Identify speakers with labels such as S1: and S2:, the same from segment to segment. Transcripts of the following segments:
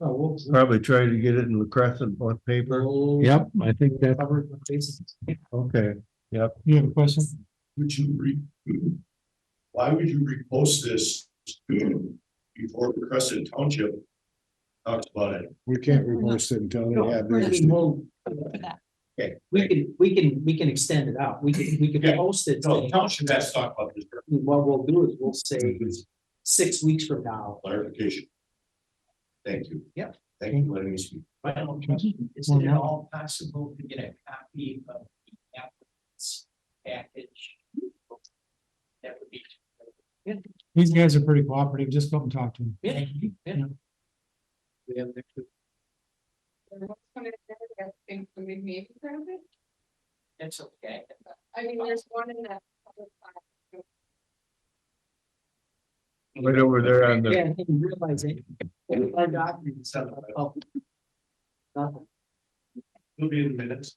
S1: Oh, whoops.
S2: Probably try to get it in the Crescent on paper.
S3: Uh, Yep, I think that,
S1: Covered with bases.
S2: Okay,
S3: you have a question?
S4: Would you re? Why would you repost this before Crescent Township talked about it?
S5: We can't reverse it until they have theirs.
S1: We won't-
S6: that.
S4: Okay.
S1: We can, we can, we can extend it out. We can, we can
S4: Yeah.
S1: post it.
S4: No,
S1: saying,
S4: Township has to talk about this for
S1: What we'll do is we'll say six weeks from now.
S4: clarification. Thank you.
S1: Yep.
S4: Thank you for letting me speak.
S1: Is it at all possible to get a copy of the applicant's package? That would be.
S3: These guys are pretty cooperative. Just go up and talk to them.
S1: Yeah, yeah. We have next to-
S6: There was one in there that I think we may maybe grab it.
S1: That's okay.
S6: I mean, there's one in that. other file.
S2: right over there on the,
S1: Yeah, I didn't realize it. Our oh. documents are up. Nothing.
S4: We'll be in minutes.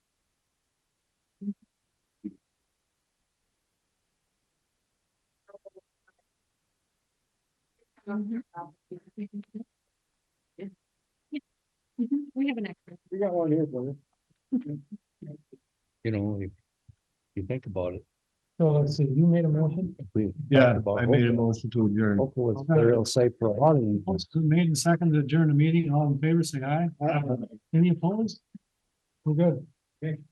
S6: Mm-hmm. Um, Yeah. Mhm, We have an extra.
S5: We got one here, brother.
S7: you know, if you think about it.
S3: So let's see, you made a motion?
S7: we
S2: yeah,
S7: talked about
S2: I made a
S7: Oakwood.
S2: motion to adjourn.
S7: Oakwood's burial site for a lot of them.
S3: Motion made and seconded to adjourn the meeting. All in favor, say aye. Any opposed? We're good.